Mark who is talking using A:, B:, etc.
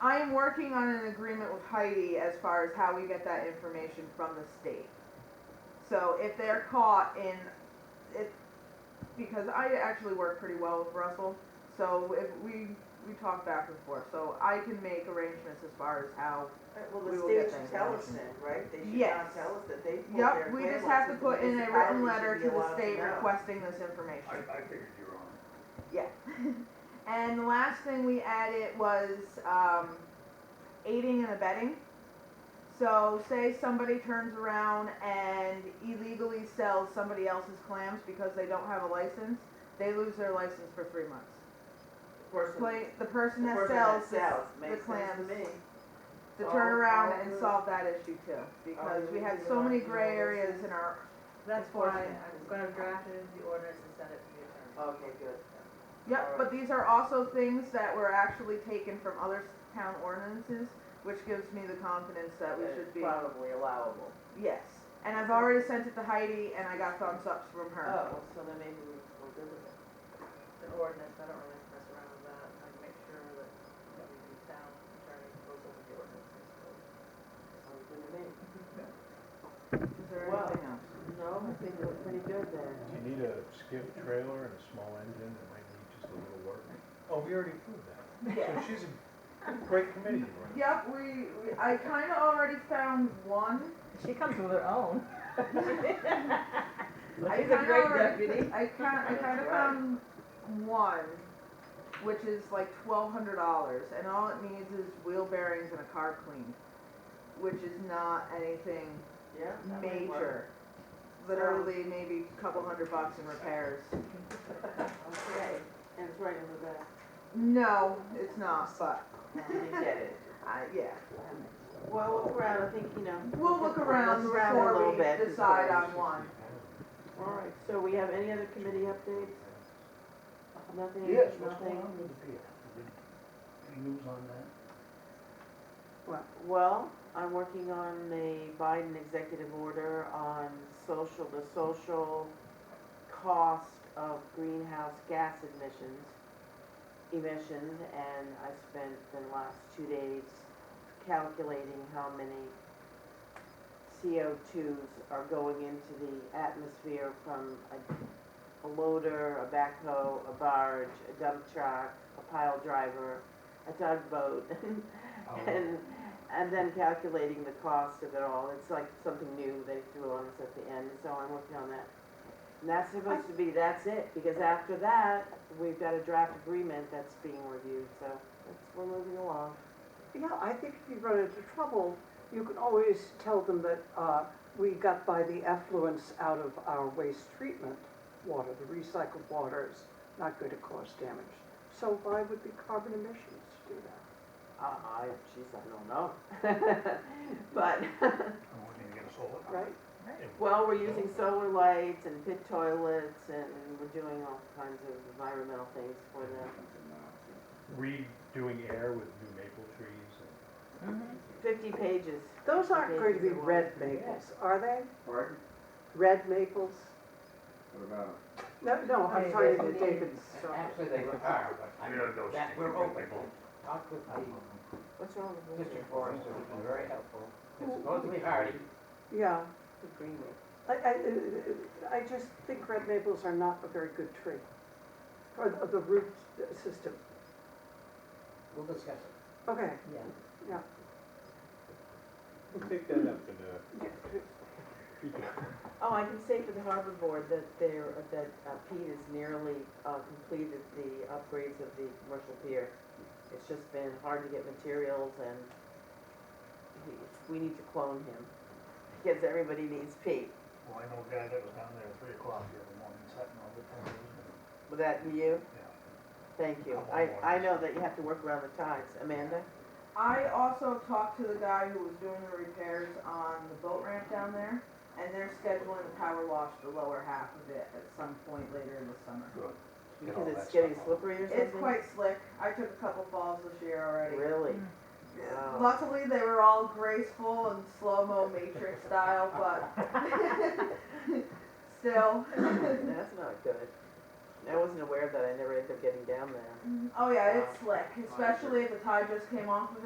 A: I am working on an agreement with Heidi as far as how we get that information from the state. So if they're caught in, it, because I actually work pretty well with Russell, so if we, we talk back and forth, so I can make arrangements as far as how,
B: Well,
A: We
B: the
A: will
B: state
A: get
B: should
A: that
B: tell us then,
A: information.
B: right? They should
A: Yes.
B: not tell us that they pulled their
A: yep, we just have to
B: equivalents
A: put in
B: and
A: a written
B: municipalities
A: letter
B: should
A: to
B: be
A: the
B: allowed
A: state
B: know.
A: requesting this
C: I,
A: information.
C: I figured you were on it.
A: Yeah. And the last thing we added was um, aiding and abetting. So say somebody turns around and illegally sells somebody else's clams because they don't have a license, they lose their license for three months.
B: Person-
A: Play, the
B: the
A: person that
B: person
A: sells,
B: that sells,
A: the
B: makes sense to
A: clams.
B: me. Oh,
A: to
B: All-
A: turn around
B: all
A: and
B: the-
A: solve that issue too, because we had
B: the
A: so many
B: illegal
A: gray areas
B: license.
A: in our,
D: That's why
A: Enforcement.
D: I'm gonna draft it into the ordinance and send it to the attorney.
B: Okay, good.
A: Yep, but these are also things that were actually taken from other town ordinances, which gives me the confidence that we
B: It's
A: should be,
B: Probably allowable.
A: yes. And I've already sent it to Heidi and I got thumbs ups from her.
B: Oh, so then maybe we- we're good with it.
D: It's an ordinance, I don't really mess around with that, I make sure that that we do town attorney goes over the ordinance.
B: Sounds good to me.
A: Is there
B: Well-
A: anything else?
B: No, I think we're pretty good there.
E: Do you need a skip trailer and a small engine that might need just a little work? Oh, we already proved that. So she's a great committee, right?
A: Yep, we, we- I kinda already found one.
D: She comes with her own.
A: I
D: She's a
A: kinda
D: great
A: already-
D: deputy.
A: I kinda, I kinda
B: That's right.
A: found one, which is like twelve hundred dollars, and all it needs is wheel bearings and a car cleaned, which is not anything
B: Yeah? that might work.
A: major. Literally maybe a couple hundred bucks in repairs.
B: Okay, and it's right in the back.
A: No, it's not, but,
B: You get it.
A: uh, yeah.
B: Well, look around, I think, you know.
A: We'll look around
B: Look around a
A: before
B: little
A: we
B: bit.
A: decide on one.
B: All right, so we have any other committee updates? Nothing?
E: Yes, what's
B: nothing?
E: going on with the beer? Any news on that?
B: Well, I'm working on the Biden executive order on social, the social cost of greenhouse gas emissions, emissions, and I spent the last two days calculating how many CO2s are going into the atmosphere from a, a loader, a backhoe, a barge, a dump truck, a pile driver, a tugboat, and, and then calculating the cost of it all, it's like something new they threw on us at the end, so I'm working on that. And that's supposed to be, that's it, because after that, we've got a draft agreement that's being reviewed, so that's, we're moving along.
F: Yeah, I think if you run into trouble, you can always tell them that uh, we got by the effluents out of our waste treatment water, the recycled water is not going to cause damage. So why would the carbon emissions do that?
B: Uh, I, geez, I don't know. But,
E: I want you to get a solar.
F: Right.
B: well, we're using solar lights and pit toilets, and we're doing all kinds of environmental things for them.
E: Redoing air with new maple trees and.
D: Mm-hmm.
B: Fifty pages.
F: Those
B: 50
F: aren't going to be
B: pages of
F: red
B: work.
F: maples, are they?
G: Pardon?
F: Red maples?
G: What about?
F: No, no, I'm talking about David's.
H: Actually, they are, but I mean, that, we're open. Talked with the
B: What's wrong with this?
H: district forester, who's been very helpful. It's supposed to be hardy,
F: Yeah,
B: The green one.
F: I, I, I just think red maples are not a very good tree, or the- the root system.
H: we'll discuss it.
F: Okay.
H: Yeah.
F: Yeah.
E: We'll take that up in the future.
B: Oh, I can say for the harbor board that there, that uh, Pete has nearly uh, completed the upgrades of the commercial pier. It's just been hard to get materials and he- we need to clone him because everybody needs Pete.
E: Well, I know a guy that was down there at three o'clock the other morning, sat in all the time.
B: Would that be you?
E: Yeah.
B: Thank you. I, I know that you have to work around the times. Amanda?
A: I also talked to the guy who was doing the repairs on the boat ramp down there, and they're scheduling to power wash the lower half of it at some point later in the summer.
E: Good. Get all
B: Because
E: that
B: it's
E: stuff
B: getting
E: off.
B: slippery or something?
A: It's quite slick. I took a couple falls this year already.
B: Really? Wow.
A: Luckily, they were all graceful and slow-mo matrix style, but still.
B: That's not good. I wasn't aware of that. I never ended up getting down there.
A: oh yeah, it's slick, especially if the tide just came off of it.